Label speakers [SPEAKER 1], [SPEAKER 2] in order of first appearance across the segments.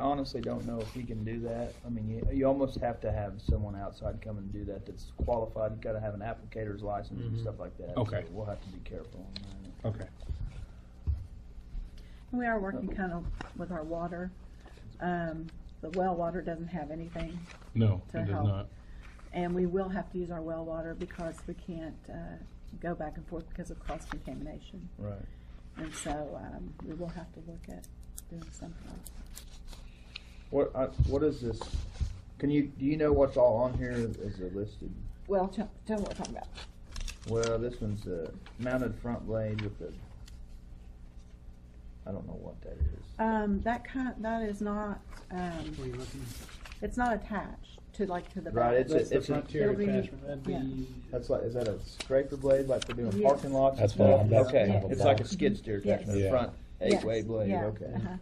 [SPEAKER 1] honestly don't know if he can do that. I mean, you, you almost have to have someone outside come and do that that's qualified. You gotta have an applicator's license and
[SPEAKER 2] Mhm.
[SPEAKER 1] stuff like that.
[SPEAKER 3] Mm-hmm. Okay.
[SPEAKER 1] So We'll have to be careful on that.
[SPEAKER 3] Okay.
[SPEAKER 4] We are working kind of with our water. Um, the well water doesn't have anything,
[SPEAKER 3] No,
[SPEAKER 4] To
[SPEAKER 3] it does
[SPEAKER 4] help.
[SPEAKER 3] not.
[SPEAKER 4] and we will have to use our well water because we can't, uh, go back and forth because of cross contamination.
[SPEAKER 1] Right.
[SPEAKER 4] And so, um, we will have to look at doing something like that.
[SPEAKER 1] What, I, what is this? Can you, do you know what's all on here as a listed?
[SPEAKER 4] Well, tell, tell me what we're talking about.
[SPEAKER 1] Well, this one's a mounted front blade with a, I don't know what that is.
[SPEAKER 4] Um, that kind, that is not, um,
[SPEAKER 2] you looking?
[SPEAKER 4] it's not attached to like to the back.
[SPEAKER 1] Right, it's
[SPEAKER 2] That's
[SPEAKER 1] a,
[SPEAKER 2] the
[SPEAKER 1] it's a,
[SPEAKER 2] frontier
[SPEAKER 4] It'll be-
[SPEAKER 2] attachment, that'd be.
[SPEAKER 1] that's like, is that a scraper blade like they do in
[SPEAKER 4] Yes.
[SPEAKER 1] parking lots? and
[SPEAKER 3] That's what I'm-
[SPEAKER 1] stuff?
[SPEAKER 3] that's
[SPEAKER 1] Okay,
[SPEAKER 4] kind of a
[SPEAKER 1] it's like a
[SPEAKER 3] box.
[SPEAKER 1] skid steer attachment,
[SPEAKER 3] Yes.
[SPEAKER 1] a front
[SPEAKER 4] Yes,
[SPEAKER 1] eight-way blade,
[SPEAKER 4] yeah,
[SPEAKER 1] okay.
[SPEAKER 4] uh-huh.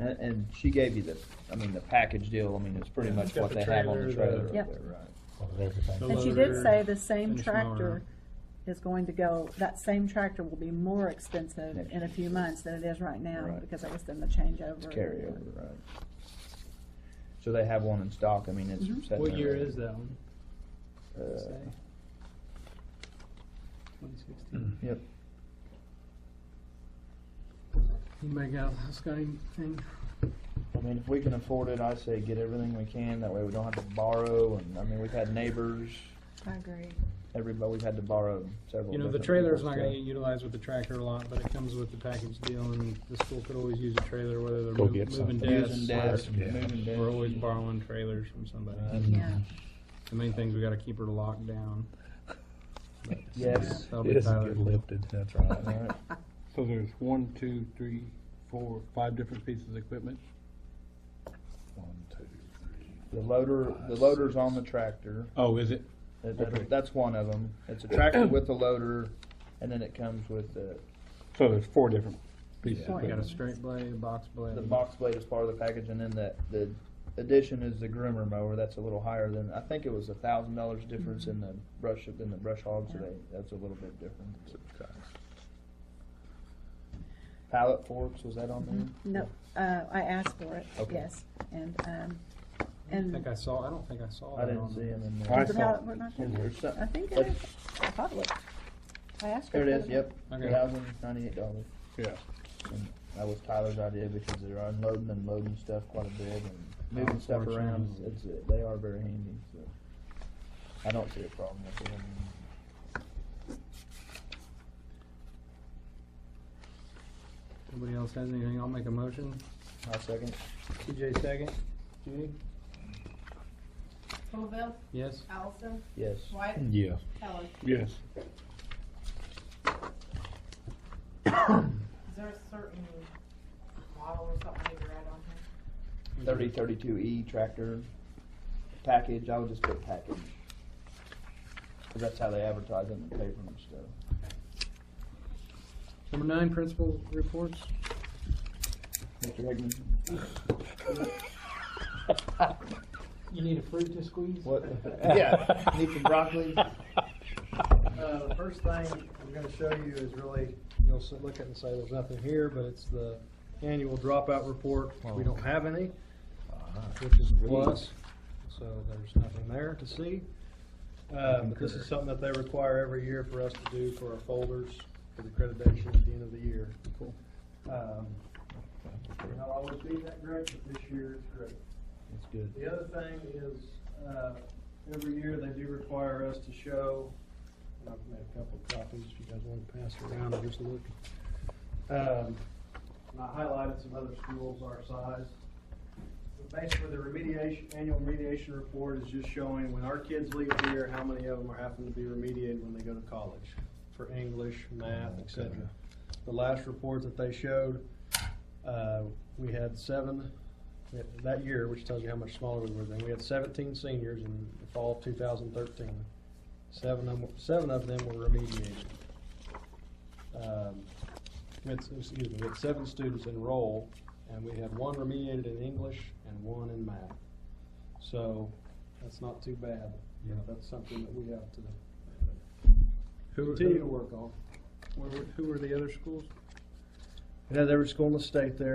[SPEAKER 1] And, and she gave you the, I mean, the package deal, I mean, it's pretty
[SPEAKER 2] Yeah,
[SPEAKER 1] much
[SPEAKER 2] it's got
[SPEAKER 1] what
[SPEAKER 2] the
[SPEAKER 1] they have on the
[SPEAKER 2] trailer, the-
[SPEAKER 1] trailer over there,
[SPEAKER 4] Yep.
[SPEAKER 1] right?
[SPEAKER 3] Well, Oh, there's the thing.
[SPEAKER 2] The
[SPEAKER 4] And she
[SPEAKER 2] loader,
[SPEAKER 4] did say the same
[SPEAKER 2] finished mower.
[SPEAKER 4] tractor is going to go, that same tractor will be more expensive
[SPEAKER 1] Next
[SPEAKER 4] in a few months than it is right now,
[SPEAKER 1] Right.
[SPEAKER 4] because I guess then the changeover.
[SPEAKER 1] It's carryover, right? So they have one in stock, I mean, it's.
[SPEAKER 4] Mhm.
[SPEAKER 1] sitting
[SPEAKER 2] What
[SPEAKER 1] there
[SPEAKER 2] year
[SPEAKER 1] ready.
[SPEAKER 2] is that one?
[SPEAKER 1] Uh,
[SPEAKER 2] Twenty sixteen.
[SPEAKER 1] Yep.
[SPEAKER 2] Anybody got a house got anything?
[SPEAKER 1] I mean, if we can afford it, I say get everything we can, that way we don't have to borrow, and, I mean, we've had neighbors,
[SPEAKER 4] I agree.
[SPEAKER 1] everybody, we've had to borrow several.
[SPEAKER 2] You know, the
[SPEAKER 1] different
[SPEAKER 2] trailer's
[SPEAKER 1] people's
[SPEAKER 2] not gonna
[SPEAKER 1] stuff.
[SPEAKER 2] get utilized with the tractor a lot, but it comes with the package deal and the school could always use a trailer, whether they're
[SPEAKER 3] Go
[SPEAKER 2] mov-
[SPEAKER 3] get
[SPEAKER 2] moving
[SPEAKER 3] something.
[SPEAKER 1] Using
[SPEAKER 2] desks.
[SPEAKER 1] desks,
[SPEAKER 3] Yeah.
[SPEAKER 1] moving desks.
[SPEAKER 2] We're always borrowing trailers from somebody.
[SPEAKER 1] Uh,
[SPEAKER 3] Mm-hmm.
[SPEAKER 4] Yeah,
[SPEAKER 2] The main thing's we gotta keep her locked down.
[SPEAKER 1] Yes.
[SPEAKER 2] That'll
[SPEAKER 3] It
[SPEAKER 2] be
[SPEAKER 3] doesn't
[SPEAKER 2] Tyler.
[SPEAKER 3] get lifted, that's right.
[SPEAKER 1] Alright.
[SPEAKER 5] So there's one, two, three, four, five different pieces of equipment?
[SPEAKER 3] One, two, three.
[SPEAKER 1] The loader, the loader's on the tractor,
[SPEAKER 5] Oh, is it?
[SPEAKER 1] That-
[SPEAKER 5] Okay.
[SPEAKER 1] that- that's one of them, it's a tractor with a loader, and then it comes with the,
[SPEAKER 5] So there's four different pieces.
[SPEAKER 4] Yeah.
[SPEAKER 2] We got a straight blade, a box blade.
[SPEAKER 1] the box blade is part of the package, and then the, the addition is the groomer mower, that's a little higher than, I think it was a thousand dollars difference in the brush, than the brush hog, so
[SPEAKER 4] Yeah.
[SPEAKER 1] they, that's a little bit different. Pallet forks, was that on there?
[SPEAKER 4] no, uh, I asked for it,
[SPEAKER 1] Mm-hmm. Okay.
[SPEAKER 4] yes, and, um,
[SPEAKER 2] I don't think
[SPEAKER 4] and-
[SPEAKER 2] I saw, I don't think I saw
[SPEAKER 1] I
[SPEAKER 2] that
[SPEAKER 1] didn't
[SPEAKER 2] on
[SPEAKER 1] see them
[SPEAKER 2] there.
[SPEAKER 1] in
[SPEAKER 5] I
[SPEAKER 1] there.
[SPEAKER 4] Is it
[SPEAKER 5] saw
[SPEAKER 4] how
[SPEAKER 5] it.
[SPEAKER 4] it worked out?
[SPEAKER 1] In here, so-
[SPEAKER 4] I think it
[SPEAKER 1] Let's-
[SPEAKER 4] is, I thought it was, I asked her.
[SPEAKER 1] There it
[SPEAKER 4] if
[SPEAKER 1] is, yep,
[SPEAKER 2] Okay.
[SPEAKER 1] thousand ninety-eight dollars.
[SPEAKER 5] Yeah.
[SPEAKER 1] And That was Tyler's idea because they're unloading and loading stuff quite a bit and moving stuff around.
[SPEAKER 2] Unfortunately.
[SPEAKER 1] It's, they are very handy, so I don't see a problem with it.
[SPEAKER 2] Nobody else has anything? I'll make a motion.
[SPEAKER 1] My second,
[SPEAKER 2] TJ second. Judy?
[SPEAKER 6] Colville,
[SPEAKER 2] Yes?
[SPEAKER 6] Allison,
[SPEAKER 1] yes.
[SPEAKER 6] White,
[SPEAKER 3] Yeah.
[SPEAKER 6] Heller.
[SPEAKER 5] Yes.
[SPEAKER 6] Is there a certain model or something I need to write on here?
[SPEAKER 1] Thirty thirty-two E tractor package, I would just put package. 'Cause that's how they advertise it in the paper and stuff.
[SPEAKER 2] Number nine, principal reports.
[SPEAKER 1] Mr. Hickman,
[SPEAKER 2] You need a fruit to squeeze?
[SPEAKER 1] what? Yeah, need some broccoli?
[SPEAKER 2] Uh, the first thing I'm gonna show you is really, you'll s- look at it and say, there's nothing here, but it's the annual dropout report. We don't have any, which is a plus, so there's nothing there to see. Um, but this is something that they require every year for us to do for our folders, for the accreditation at the end of the year. Cool. Um, I'll always be that great, but this year it's great.
[SPEAKER 1] That's good.
[SPEAKER 2] The other thing is, uh, every year they do require us to show, and I've made a couple of copies, if you guys want to pass it around and just look. Um, and I highlighted some other schools our size. But Basically, the remediation, annual remediation report is just showing when our kids leave here, how many of them are having to be remediated when they go to college for English, math, et cetera. The last report that they showed, uh, we had seven that- that year, which tells you how much smaller we were then, we had seventeen seniors in the fall of two thousand thirteen. Seven of, them- seven of them were remediated. Um, we had, excuse me, we had seven students enroll, and we had one remediated in English and one in math. So, that's not too bad. You know, that's something that we have to continue to work on. Who were the other schools? Yeah, there was school in the state there,